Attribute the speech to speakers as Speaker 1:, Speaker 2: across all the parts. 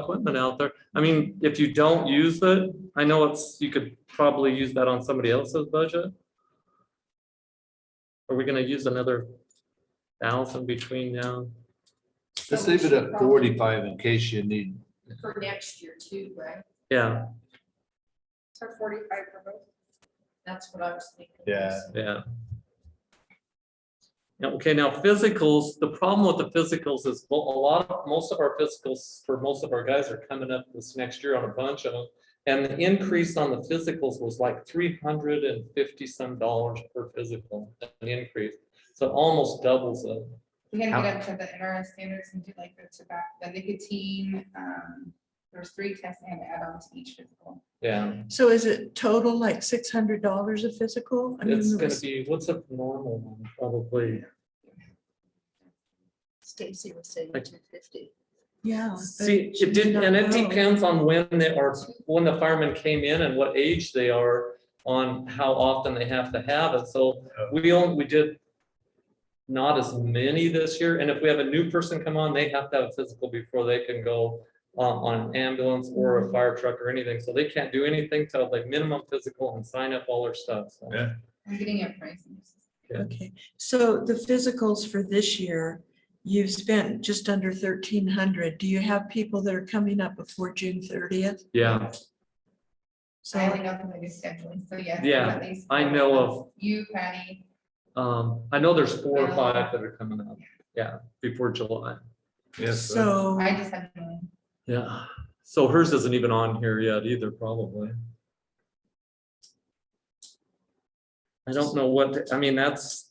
Speaker 1: equipment out there. I mean, if you don't use it, I know it's, you could probably use that on somebody else's budget. Are we gonna use another thousand between now?
Speaker 2: Let's leave it at forty-five in case you need,
Speaker 3: For next year too, right?
Speaker 1: Yeah,
Speaker 4: So forty-five for both.
Speaker 3: That's what I was thinking.
Speaker 2: Yeah.
Speaker 1: yeah. Now, Okay, now physicals, the problem with the physicals is mo- a lot, of most of our physicals for most of our guys are coming up this next year on a bunch of them. And the increase on the physicals was like three hundred and fifty some dollars per physical, an increase. So it almost doubles it.
Speaker 4: We had to
Speaker 2: How-
Speaker 4: get up to the NRS standards and do like the tobacco, the nicotine, um, there's three tests and add-ons to each physical.
Speaker 1: Yeah,
Speaker 5: So is it total like six hundred dollars a physical? I mean,
Speaker 1: it's
Speaker 5: there
Speaker 1: gonna
Speaker 5: was-
Speaker 1: be, what's a normal one, probably,
Speaker 3: Stacy was saying
Speaker 1: Like-
Speaker 3: two fifty.
Speaker 5: Yeah. but
Speaker 1: See,
Speaker 5: she
Speaker 1: it did,
Speaker 5: not
Speaker 1: and it
Speaker 5: know.
Speaker 1: depends on when they are, when the firemen came in and what age they are on how often they have to have it. So we only, we did not as many this year. And if we have a new person come on, they have to have a physical before they can go on, on ambulance or a fire truck or anything. So they can't do anything till they minimum physical and sign up all their stuff. So
Speaker 2: Yeah.
Speaker 4: I'm getting a price. on this.
Speaker 5: Okay, so the physicals for this year, you've spent just under thirteen hundred. Do you have people that are coming up before June thirtieth?
Speaker 1: Yeah,
Speaker 4: So I only know them like scheduling, so yes.
Speaker 1: Yeah,
Speaker 4: at least
Speaker 1: I
Speaker 4: four
Speaker 1: know
Speaker 4: months.
Speaker 1: of-
Speaker 4: You, Patty,
Speaker 1: um, I know there's four or five that are coming up. Yeah, before July.
Speaker 2: yes, so
Speaker 5: So,
Speaker 4: I just have. no-
Speaker 1: Yeah, so hers isn't even on here yet either, probably. I don't know what, I mean, that's,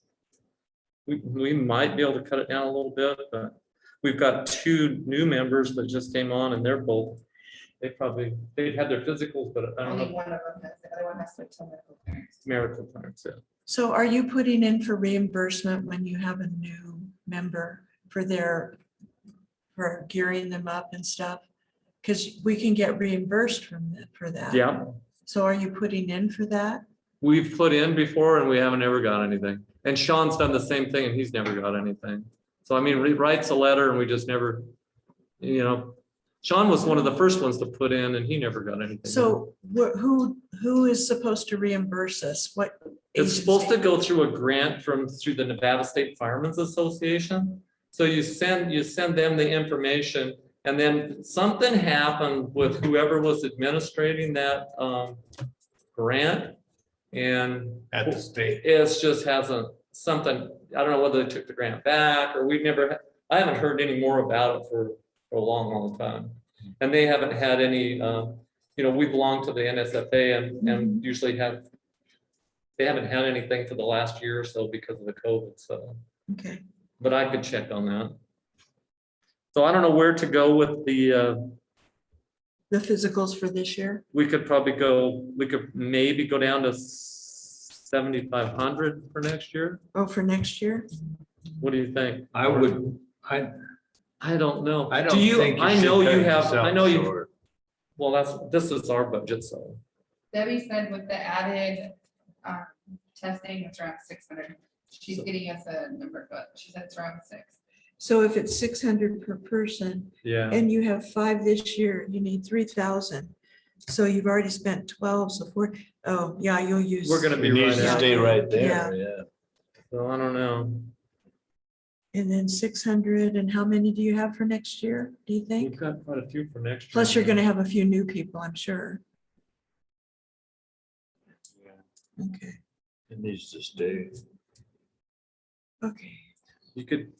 Speaker 1: we, we might be able to cut it down a little bit, but we've got two new members that just came on and they're both, they probably, they had their physicals, but I don't
Speaker 4: Only
Speaker 1: know,
Speaker 4: one of them, has- the other one has to wait till medical clearance.
Speaker 1: marital parents, yeah.
Speaker 5: so are you putting in for reimbursement when you have a new member for their, for gearing them up and stuff? Because we can get reimbursed from, that- for that.
Speaker 1: Yeah,
Speaker 5: So are you putting in for that?
Speaker 1: we've put in before and we haven't ever got anything. And Sean's done the same thing and he's never got anything. So I mean, he writes a letter and we just never, you know, Sean was one of the first ones to put in and he never got anything.
Speaker 5: So wh- who, who is supposed to reimburse us? What?
Speaker 1: It's supposed to
Speaker 5: agency?
Speaker 1: go through a grant from, through the Nevada State Firemen's Association. So you send, you send them the information and then something happened with whoever was administrating that, um, grant. And
Speaker 2: at the state.
Speaker 1: it's just hasn't, something, I don't know whether they took the grant back or we've never, I haven't heard any more about it for, for a long, long time. And they haven't had any, um, you know, we belong to the NSFA and,
Speaker 2: Mm-hmm.
Speaker 1: and usually have, they haven't had anything for the last year or so because of the COVID, so,
Speaker 5: Okay,
Speaker 1: but I could check on that. So I don't know where to go with the, uh,
Speaker 5: the physicals for this year?
Speaker 1: we could probably go, we could maybe go down to seventy-five hundred for next year.
Speaker 5: Oh, for next year?
Speaker 1: What do you think?
Speaker 2: I would, I,
Speaker 1: I don't know.
Speaker 2: I
Speaker 1: Do
Speaker 2: don't think. you
Speaker 1: I
Speaker 2: should
Speaker 1: know
Speaker 2: cut
Speaker 1: you have, I
Speaker 2: yourself
Speaker 1: know you,
Speaker 2: short.
Speaker 1: well, that's, this is our budget, so,
Speaker 4: Debbie said with the added, um, testing, it's around six hundred. She's getting us a number, but she said it's around six.
Speaker 5: So if it's six hundred per person
Speaker 1: yeah.
Speaker 5: and you have five this year, you need three thousand. So you've already spent twelve, so four, oh, yeah, you'll use.
Speaker 1: We're gonna be
Speaker 2: It needs
Speaker 1: right
Speaker 2: to
Speaker 1: at,
Speaker 2: stay right
Speaker 5: Yeah.
Speaker 2: there, yeah.
Speaker 1: so I don't know.
Speaker 5: And then six hundred, and how many do you have for next year, do you
Speaker 1: We've
Speaker 5: think?
Speaker 1: got quite a few for next. year.
Speaker 5: Plus, you're gonna have a few new people, I'm sure. Okay,
Speaker 2: It needs to stay.
Speaker 5: okay.
Speaker 1: You could,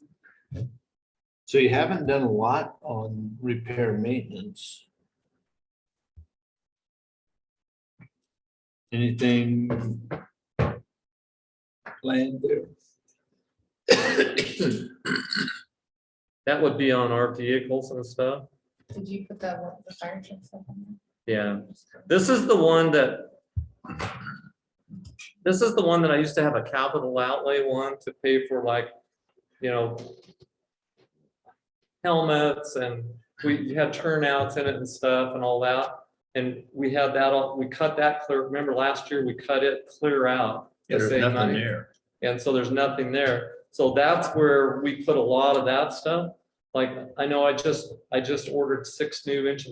Speaker 2: So you haven't done a lot on repair maintenance. Anything planned there?
Speaker 1: that would be on our vehicles and stuff,
Speaker 4: Did you put that one, the fire truck stuff on
Speaker 1: yeah.
Speaker 4: there?
Speaker 1: This is the one that. This is the one that I used to have a capital outlay one to pay for like, you know. Helmets and we had turnouts in it and stuff and all that. And we had that, all we cut that clear, remember last year, we cut it clear out. to
Speaker 2: There's
Speaker 1: save
Speaker 2: nothing
Speaker 1: money.
Speaker 2: there.
Speaker 1: And so there's nothing there. So that's where we put a lot of that stuff. Like, I know I just, I just ordered six new engine